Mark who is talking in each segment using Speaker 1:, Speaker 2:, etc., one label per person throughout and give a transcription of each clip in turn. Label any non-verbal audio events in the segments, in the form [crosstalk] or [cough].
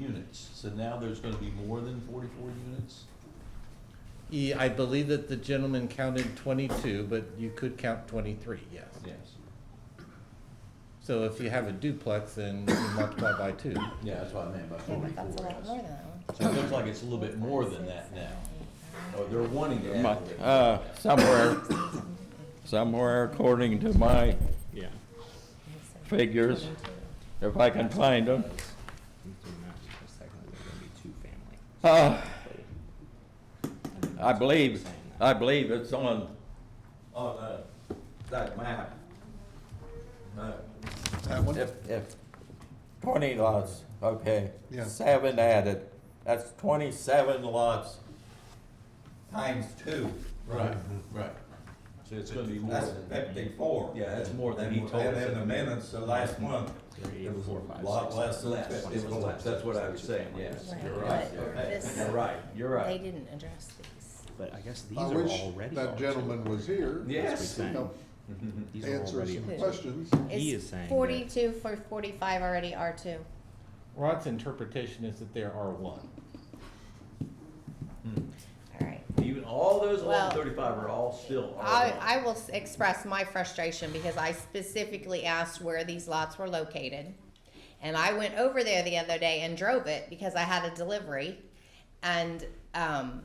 Speaker 1: units, so now there's gonna be more than forty-four units?
Speaker 2: Yeah, E, I believe that the gentleman counted twenty-two, but you could count twenty-three, yes.
Speaker 1: Yes.
Speaker 2: So if you have a duplex, then you multiply by two.
Speaker 1: Yeah, that's what I meant by
Speaker 3: Yeah, but that's a
Speaker 1: forty-four.
Speaker 3: lot more than that one.
Speaker 1: So it looks like it's a little bit more than that now. Or they're wanting to add a little bit.
Speaker 4: Uh, somewhere, somewhere according to my
Speaker 5: Yeah.
Speaker 4: figures, if I can find them. Uh, I believe, I believe it's on, on, uh, that map. Uh,
Speaker 6: That one?
Speaker 4: If, if twenty lots, okay.
Speaker 6: Yeah.
Speaker 4: Seven added, that's twenty-seven lots times two.
Speaker 1: Right, right. So it's gonna be more
Speaker 4: That's
Speaker 1: than.
Speaker 4: fifty-four.
Speaker 1: Yeah, that's more than he
Speaker 4: And-
Speaker 1: told us.
Speaker 4: And in the minutes, the last month, it was a lot less than
Speaker 1: Less, it was
Speaker 4: fifty.
Speaker 1: less, that's what I was saying, yes.
Speaker 3: Right,
Speaker 1: You're right,
Speaker 3: but
Speaker 1: you're
Speaker 3: this-
Speaker 1: right, you're right, you're
Speaker 3: They
Speaker 1: right.
Speaker 3: didn't address these.
Speaker 5: But I guess these
Speaker 6: I
Speaker 5: are
Speaker 6: wish
Speaker 5: already.
Speaker 6: that
Speaker 5: ours.
Speaker 6: gentleman was here.
Speaker 1: Yes.
Speaker 6: to help
Speaker 5: These are
Speaker 6: Answer
Speaker 5: already
Speaker 6: some
Speaker 3: ours.
Speaker 6: questions.
Speaker 5: He
Speaker 3: It's
Speaker 5: is saying that-
Speaker 3: Forty-two for forty-five already R two.
Speaker 2: Rod's interpretation is that there are one.
Speaker 3: All right.
Speaker 1: Even, all those
Speaker 3: Well,
Speaker 1: along thirty-five are all still R
Speaker 3: I, I will s- express my frustration because I specifically asked where these lots were located. And I went over there the other day and drove it because I had a delivery. And, um,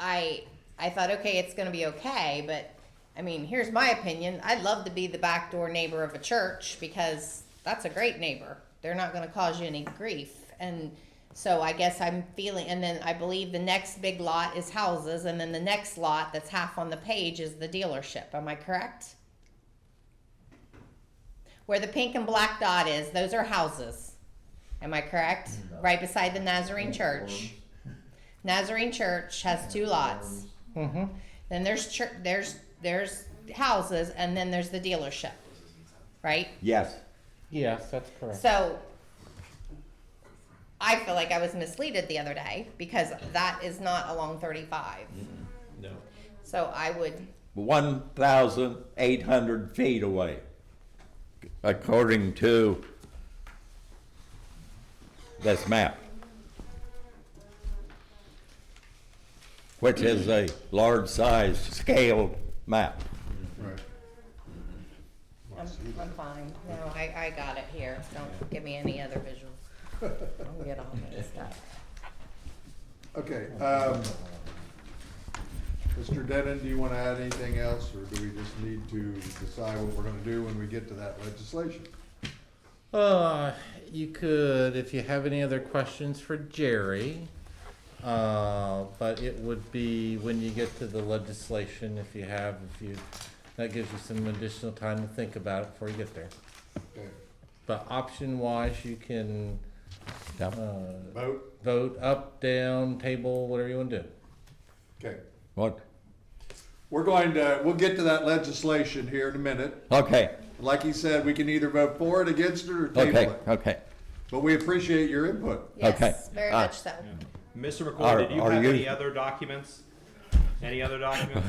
Speaker 3: I, I thought, okay, it's gonna be okay, but, I mean, here's my opinion. I'd love to be the backdoor neighbor of a church because that's a great neighbor. They're not gonna cause you any grief. And so I guess I'm feeling, and then I believe the next big lot is houses, and then the next lot that's half on the page is the dealership. Am I correct? Where the pink and black dot is, those are houses. Am I correct? Right beside the Nazarene Church. Nazarene Church has two lots.
Speaker 2: Mm-hmm.
Speaker 3: Then there's church, there's there's houses, and then there's the dealership, right?
Speaker 4: Yes.
Speaker 2: Yes, that's correct.
Speaker 3: So I feel like I was misleaded the other day because that is not along 35.
Speaker 1: No.
Speaker 3: So I would,
Speaker 4: one thousand eight hundred feet away, according to this map. Which is a large size scaled map.
Speaker 6: Right.
Speaker 3: I'm, I'm fine. No, I, I got it here. Don't give me any other visuals. I'll get all mixed up.
Speaker 6: Okay, um, Mr. Denon, do you wanna add anything else, or do we just need to decide what we're gonna do when we get to that legislation?
Speaker 2: Uh, you could, if you have any other questions for Jerry, uh, but it would be when you get to the legislation, if you have, if you, that gives you some additional time to think about it before you get there.
Speaker 6: Okay,
Speaker 2: But option wise, you can,
Speaker 4: Yep.
Speaker 2: uh,
Speaker 6: Vote,
Speaker 2: vote up, down, table, whatever you want to do.
Speaker 6: okay.
Speaker 4: What?
Speaker 6: We're going to, we'll get to that legislation here in a minute.
Speaker 4: Okay,
Speaker 6: Like he said, we can either vote for it, against it, or table
Speaker 4: okay,
Speaker 6: it.
Speaker 4: okay.
Speaker 6: But we appreciate your input.
Speaker 3: Yes,
Speaker 4: Okay.
Speaker 3: very
Speaker 4: Uh,
Speaker 3: much so.
Speaker 7: Mr.
Speaker 4: Are-
Speaker 7: McCoy, did you
Speaker 4: are
Speaker 7: have
Speaker 4: you-
Speaker 7: any other documents?
Speaker 4: [laughs]
Speaker 7: Any other documents?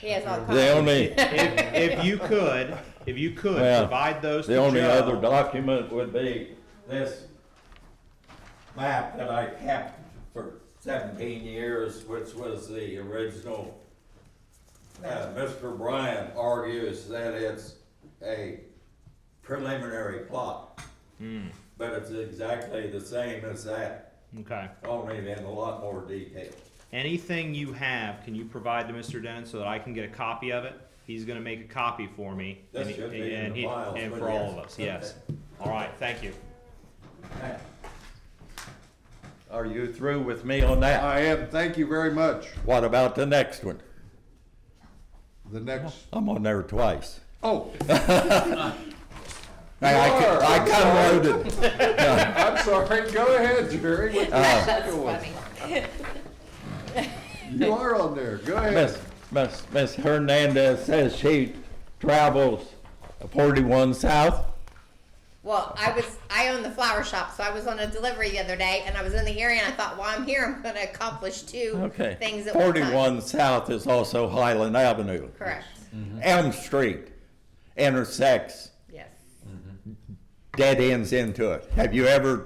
Speaker 3: He has all
Speaker 4: The
Speaker 3: kinds.
Speaker 4: only,
Speaker 7: If, if you could, if you could,
Speaker 4: Well,
Speaker 7: provide those to
Speaker 4: the only
Speaker 7: Joe.
Speaker 4: other document would be this map that I kept for seventeen years, which was the original. Uh, Mr. Bryant argues that it's a preliminary plot. But it's exactly the same as that,
Speaker 7: Okay.
Speaker 4: only in a lot more detail.
Speaker 7: Anything you have, can you provide to Mr. Denon so that I can get a copy of it? He's gonna make a copy for me.
Speaker 4: That
Speaker 7: and he-
Speaker 4: should be in
Speaker 7: and
Speaker 4: the
Speaker 7: he-
Speaker 4: files,
Speaker 7: And
Speaker 4: but
Speaker 7: for all
Speaker 4: yes.
Speaker 7: of us, yes. All right, thank you.
Speaker 4: Are you through with me on that?
Speaker 6: I am, thank you very much.
Speaker 4: What about the next one?
Speaker 6: The next,
Speaker 4: I'm on there twice.
Speaker 6: oh,
Speaker 4: I, I, co- I convoluted.
Speaker 6: I'm sorry, go ahead, Jerry, with
Speaker 4: Uh,
Speaker 6: the second one.
Speaker 3: Funny.
Speaker 6: You are on there, go ahead.
Speaker 4: Miss, Miss, Miss Hernandez says she travels forty-one south.
Speaker 3: Well, I was I own the flower shop, so I was on a delivery the other day, and I was in the area, and I thought, while I'm here, I'm going to accomplish two
Speaker 4: Okay.
Speaker 3: things at one time.
Speaker 4: Forty-one south is also Highland Avenue.
Speaker 3: Correct.
Speaker 4: Elm Street intersects
Speaker 3: Yes.
Speaker 4: dead ends into it. Have you ever